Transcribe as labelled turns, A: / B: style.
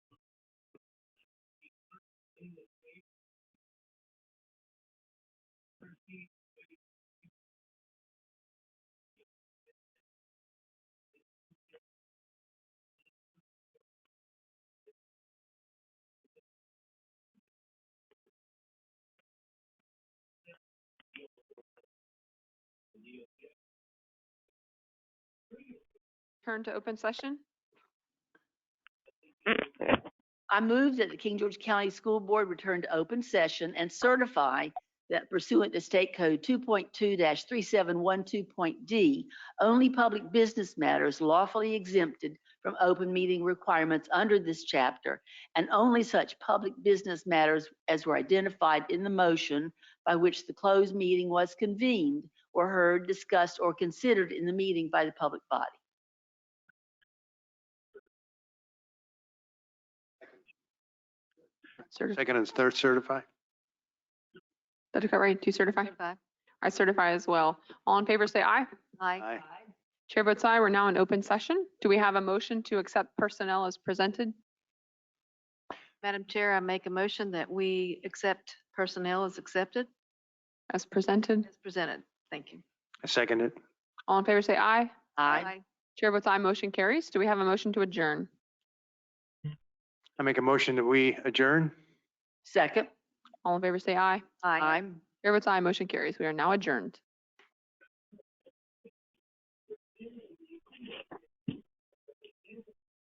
A: Turn to open session.
B: I move that the King George County School Board return to open session and certify that pursuant to State Code 2.2-3712.d, only public business matters lawfully exempted from open meeting requirements under this chapter, and only such public business matters as were identified in the motion by which the closed meeting was convened or heard, discussed, or considered in the meeting by the public body.
A: Certi-
C: Second and third certify?
A: Did I get right? To certify? I certify as well. All in favor, say aye.
C: Aye.
A: Chair votes aye. We're now in open session. Do we have a motion to accept personnel as presented?
D: Madam Chair, I make a motion that we accept personnel as accepted,
A: As presented?
D: as presented. Thank you.
C: I second it.
A: All in favor, say aye.
B: Aye.
A: Chair votes aye. Motion carries. Do we have a motion to adjourn?
C: I make a motion that we adjourn.
B: Second.
A: All in favor, say aye.
D: Aye.
B: I'm
A: Chair votes aye. Motion carries. We are now adjourned.